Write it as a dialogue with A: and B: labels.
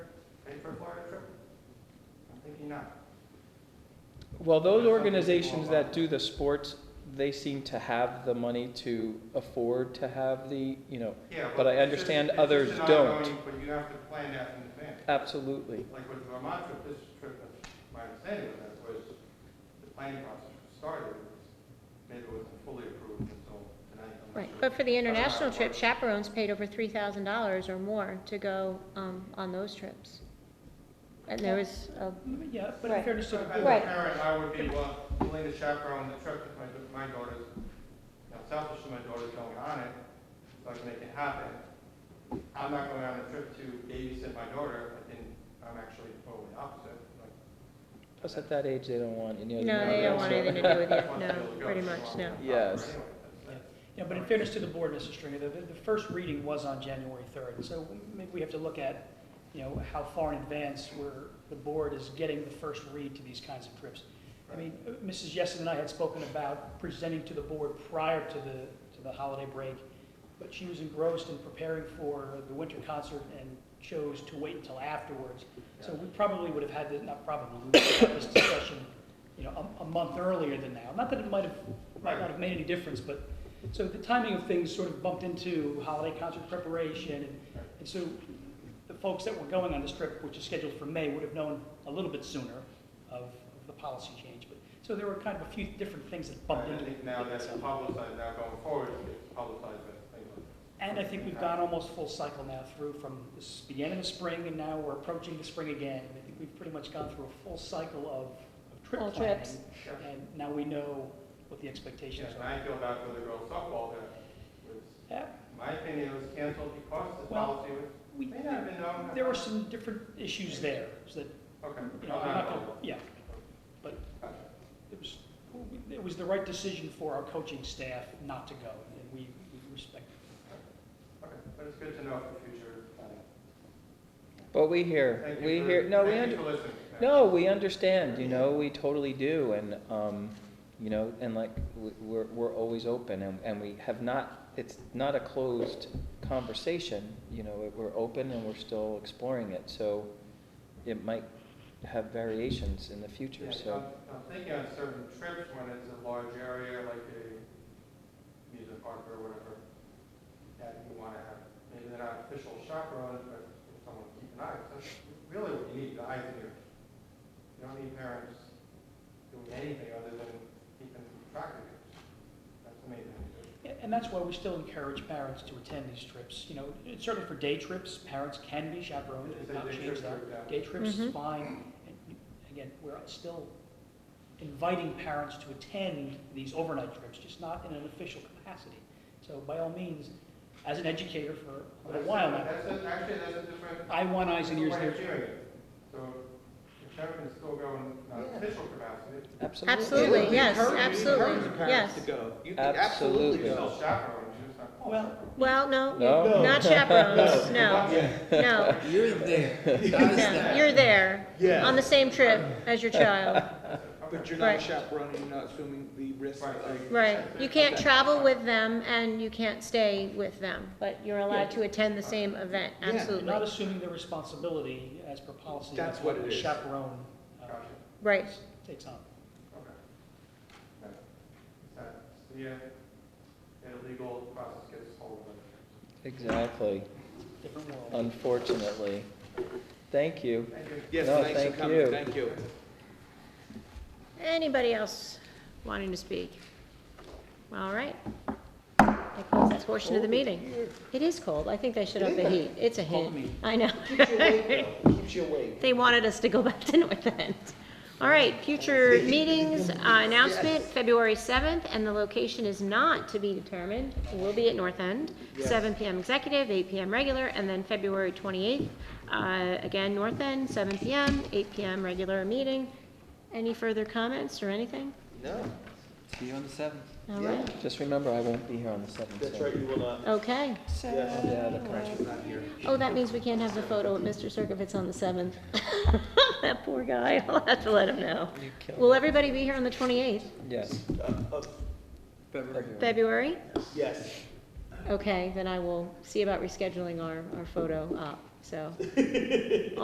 A: maybe not.
B: Well, those
A: That's something
B: organizations
A: more about
B: that do the sports, they seem to have the money to afford to have the, you know,
A: Yeah,
B: But I
A: it's just-
B: understand
A: it's just
B: others
A: an
B: don't.
A: ongoing, But you have to plan that in advance.
B: absolutely.
A: Like with the Vermont trip, this trip, uh, my understanding of that was the planning process started, maybe it wasn't fully approved until tonight. I'm not
C: Right,
A: sure. Uh,
C: but for the
A: I don't know how
C: international
A: it
C: trip,
A: works.
C: chaperones paid over three thousand dollars or more to go, um, on those trips. And there was, a-
D: Yeah, but in
C: Right.
D: fairness to
A: So
D: the
A: As a
C: Right.
D: board,
A: parent, I would be willing willing to chaperone the trip if my, if my daughter's, you know, selfish and my daughter's going on it, so I can make it happen. I'm not going on a trip to babysit my daughter, I think I'm actually totally opposite, like,
B: Plus, at that age, they don't want any other.
C: no, they
B: members,
C: don't want anything to do with
A: I
C: it,
A: want to be
C: no,
A: able to go,
C: pretty
A: so
C: much,
A: I'm-
C: no.
A: I'm-
B: Yes.
A: anyway, that's- that's-
D: yeah, but in fairness to the board, Mrs. Stringer, the, the first reading was on January 3rd, so maybe we have to look at, you know, how far in advance where the board is getting the first read to these kinds of trips. I mean, uh, Mrs. Jessen and I had spoken about presenting to the board prior to the, to the holiday break, but she was engrossed in preparing for the winter concert and chose to wait until afterwards. So we probably would have had, this- not probably, we would have had this discussion, you know, a, a month earlier than now. Not that it might have, might not have made any difference, but, so the timing of things sort of bumped into holiday concert preparation, and, and so the folks that were going on this trip, which is scheduled for May, would have known a little bit sooner of of the policy change, but, so there were kind of a few different things that bumped
A: I
D: into
A: think now that's
D: it.
A: publicized, now going forward, it's publicized, but, like,
D: And I think we've gone almost full cycle now through from, this began in the spring, and now we're approaching the spring again. And I think we've pretty much gone through a full cycle of- of trip
C: All
D: planning.
C: trips.
A: yeah.
D: And now we know what the expectations
A: Yes, and
D: are.
A: I feel bad for the girls softball that was,
D: Yeah,
A: my opinion, it was canceled because the
D: Well,
A: policy was,
D: we,
A: may not have been known.
D: there were some different issues there, so that,
A: Okay.
D: you know, I'm not gonna, yeah, but it was, it was the right decision for our coaching staff not to go, and we we respect
A: Okay, but it's good to know for future planning.
B: But we hear,
A: Thank you
B: we
A: for-
B: hear, no, we
A: thank
B: under,
A: you for listening.
B: No, we understand, you know, we totally do, and, um, you know, and like, we- we're, we're always open, and, and we have not, it's not a closed conversation, you know, it- we're open and we're still exploring it, so it might have variations in the
A: Yeah,
B: future,
A: I'm
B: so,
A: I'm thinking on certain trips when it's a large area, like a music park or whatever, that you want to have, maybe they're not official chaperones, but someone to keep an eye. That's really what you need, the eyes and ears. You don't need parents doing anything other than keeping track of it. That's the main thing.
D: Yeah, And that's why we still encourage parents to attend these trips. You know, it's certainly for day trips, parents can be chaperoned,
A: It's
D: we've
A: a
D: not
A: day
D: changed
A: trip,
D: that.
A: for example.
D: Day trips is
C: Mhm.
D: fine. And Again, we're still inviting parents to attend these overnight trips, just not in an official capacity. So by all means, as an educator for a
A: That's
D: little
A: a-
D: while now,
A: That's, a- actually, that's a different
D: I want eyes and ears
A: way of
D: there.
A: doing it. So the chairman is still going on official capacity.
B: absolutely.
C: Absolutely,
E: Yeah,
C: yes,
E: encourage- encourage
C: absolutely,
E: the parents
C: yes.
E: to go. You could absolutely
B: Absolutely.
A: You're
E: go.
A: still chaperones, you're just not called
D: Well,
A: chaperones.
C: Well, no,
B: No.
C: not chaperones, no, no,
E: You're there.
C: no, you're there, on
E: Yeah,
C: the same trip as your child,
E: but you're
C: Right.
E: not chaperoning, you're not assuming the risk
A: Right.
E: of.
C: right. You can't travel with them and you can't stay with them, but you're allowed to attend the same event,
E: Yeah,
D: You're
E: not
D: Not
C: absolutely.
D: assuming their responsibility as per policy.
E: That's
D: of
E: what it
D: the
E: is.
D: Chaperone uh,
A: Gotcha,
C: Right,
D: takes on.
A: okay. Right. So, so, yeah, the legal process gets hold of it.
B: Exactly,
D: Different world.
B: unfortunately. Thank you.
A: Thank you.
E: Yes,
B: No,
E: thanks for
B: thank
E: coming,
B: you.
E: thank you.
C: anybody else wanting to speak? All right. I close that portion of the meeting. It is cold, I think they should up the heat, it's a heat,
E: Cold meeting.
C: I know.
E: Keeps you awake, though. keeps you awake.
C: They wanted us to go back to North End. All right, future meetings, uh, announcement, February 7th, and the location is not to be determined. It Will be at North End,
E: Yes.
C: seven PM executive, eight PM regular, and then February 28th, uh, again, North End, seven PM, eight PM regular meeting. Any further comments or anything?
E: No,
F: See you on the seventh.
C: All
E: Yeah.
C: right,
B: Just remember, I won't be here on the seventh.
F: That's right, you will Uh, not.
C: okay.
F: Yes.
B: Yeah, the con-
E: Rachel's not here.
C: Oh, that means we can't have the photo of Mr. Circovitz on the 7th. That poor guy, I'll have to let him know.
B: you killed
C: Will
B: it.
C: everybody be here on the 28th,
B: Yes.
F: Uh, of February.
C: February?
F: Yes.
C: Okay, then I will see about rescheduling our, our photo up, so.